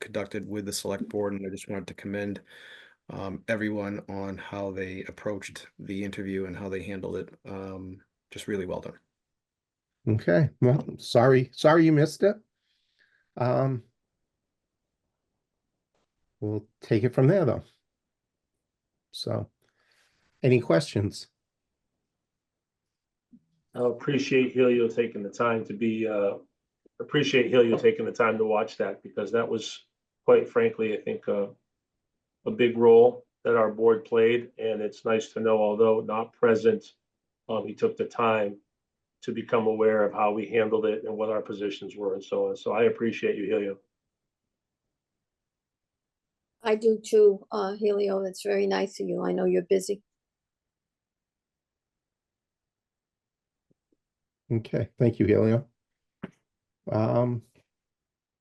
conducted with the select board, and I just wanted to commend um, everyone on how they approached the interview and how they handled it. Um, just really well done. Okay, well, sorry, sorry you missed it. Um. We'll take it from there, though. So, any questions? I appreciate Helio taking the time to be, uh, appreciate Helio taking the time to watch that because that was quite frankly, I think, uh, a big role that our board played and it's nice to know, although not present, um, he took the time to become aware of how we handled it and what our positions were and so on. So I appreciate you, Helio. I do too, uh, Helio. That's very nice of you. I know you're busy. Okay, thank you, Helio. Um.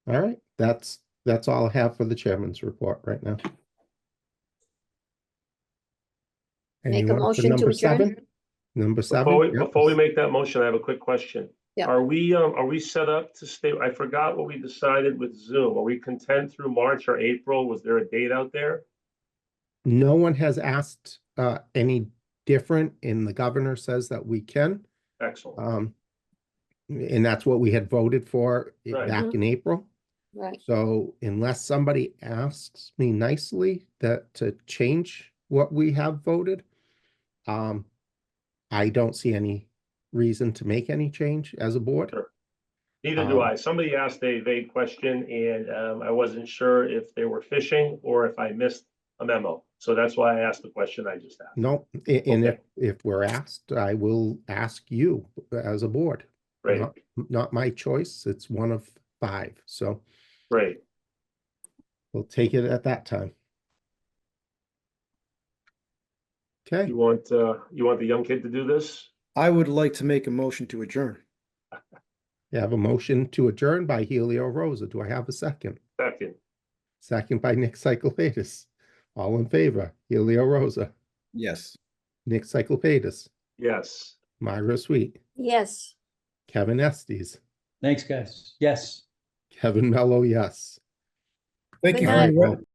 All right, that's, that's all I have for the chairman's report right now. Make a Anyone for motion to number adjourn. seven? Number seven? Before we, Yep. before we make that motion, I have a quick question. Yeah. Are we, um, are we set up to stay, I forgot what we decided with Zoom. Are we content through March or April? Was there a date out there? No one has asked uh any different, and the governor says that we can. Excellent. Um, and that's what we had voted for i- Right. back Mhm. in April. Right. So unless somebody asks me nicely that to change what we have voted, um, I don't see any reason to make any change as a board. Sure. Neither do um, I. Somebody asked a vague question and, um, I wasn't sure if they were fishing or if I missed a memo. So that's why I asked the question I just asked. No, a- and if Okay. if we're asked, I will ask you as a board. Great, Not not my choice. It's one of five, so. great. We'll take it at that time. Okay, You want, uh, you want the young kid to do this? I would like to make a motion to adjourn. I have a motion to adjourn by Helio Rosa. Do I have a second? Second, Second by Nick Cyclepatis. All in favor, Helio Rosa, Yes. Nick Cyclepatis, yes. Myra Sweet, Yes. Kevin Estes, Thanks, guys. Yes. Kevin Mello, yes. Thank you Good night. very much.